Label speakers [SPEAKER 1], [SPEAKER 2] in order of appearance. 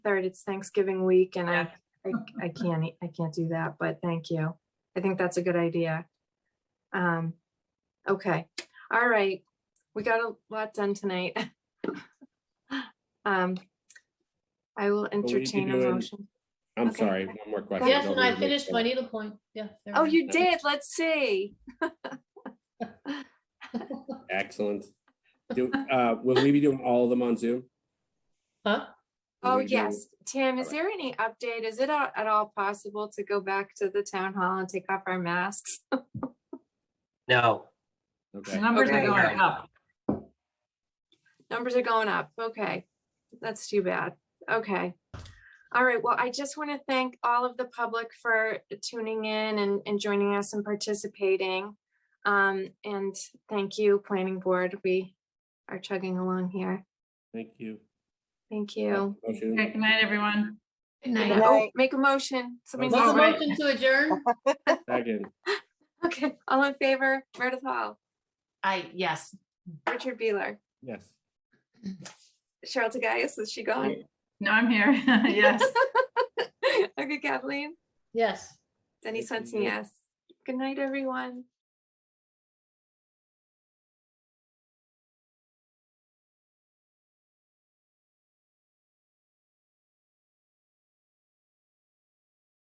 [SPEAKER 1] 23rd, it's Thanksgiving week and I,
[SPEAKER 2] Yeah.
[SPEAKER 1] I, I can't, e- I can't do that, but thank you. I think that's a good idea. Um, okay, all right. We got a lot done tonight. Um, I will
[SPEAKER 3] we need to
[SPEAKER 1] entertain a
[SPEAKER 3] do an-
[SPEAKER 1] motion.
[SPEAKER 3] I'm
[SPEAKER 1] Okay.
[SPEAKER 3] sorry, one more question.
[SPEAKER 1] Yes,
[SPEAKER 2] Yes,
[SPEAKER 3] Don't
[SPEAKER 2] and I
[SPEAKER 3] lose me.
[SPEAKER 2] finished my needle point. Yeah. there
[SPEAKER 1] Oh,
[SPEAKER 2] we
[SPEAKER 1] you
[SPEAKER 2] go.
[SPEAKER 1] did. Let's see.
[SPEAKER 3] Excellent. Do, uh, will we be doing all of them on Zoom?
[SPEAKER 2] Huh?
[SPEAKER 3] Will
[SPEAKER 1] Oh,
[SPEAKER 3] we do-
[SPEAKER 1] yes. Tam, is
[SPEAKER 3] Alright.
[SPEAKER 1] there any update? Is it a- at all possible to go back to the town hall and take off our masks?
[SPEAKER 4] No,
[SPEAKER 3] Okay.
[SPEAKER 5] The Numbers are
[SPEAKER 1] Okay.
[SPEAKER 5] going up.
[SPEAKER 1] Numbers are going up. Okay. That's too bad. Okay. All right. Well, I just want to thank all of the public for tuning in and, and joining us and participating. Um, and thank you, planning board. We are chugging along here.
[SPEAKER 3] Thank you.
[SPEAKER 1] Thank you.
[SPEAKER 3] Motion.
[SPEAKER 5] Okay, Good night, everyone.
[SPEAKER 2] Good
[SPEAKER 1] And,
[SPEAKER 2] night.
[SPEAKER 1] oh, Make a motion. Somebody.
[SPEAKER 2] Was the
[SPEAKER 5] All right.
[SPEAKER 2] motion to adjourn?
[SPEAKER 3] Second,
[SPEAKER 1] Okay. All in favor, Meredith Hall,
[SPEAKER 5] I, yes.
[SPEAKER 1] Richard Beeler,
[SPEAKER 3] yes.
[SPEAKER 1] Cheryl Tagayas, is she gone?
[SPEAKER 5] No, I'm here. Yes.
[SPEAKER 1] Okay, Kathleen,
[SPEAKER 2] Yes.
[SPEAKER 1] Denise
[SPEAKER 3] Thank
[SPEAKER 1] Swenson,
[SPEAKER 3] you.
[SPEAKER 1] yes. Good night, everyone.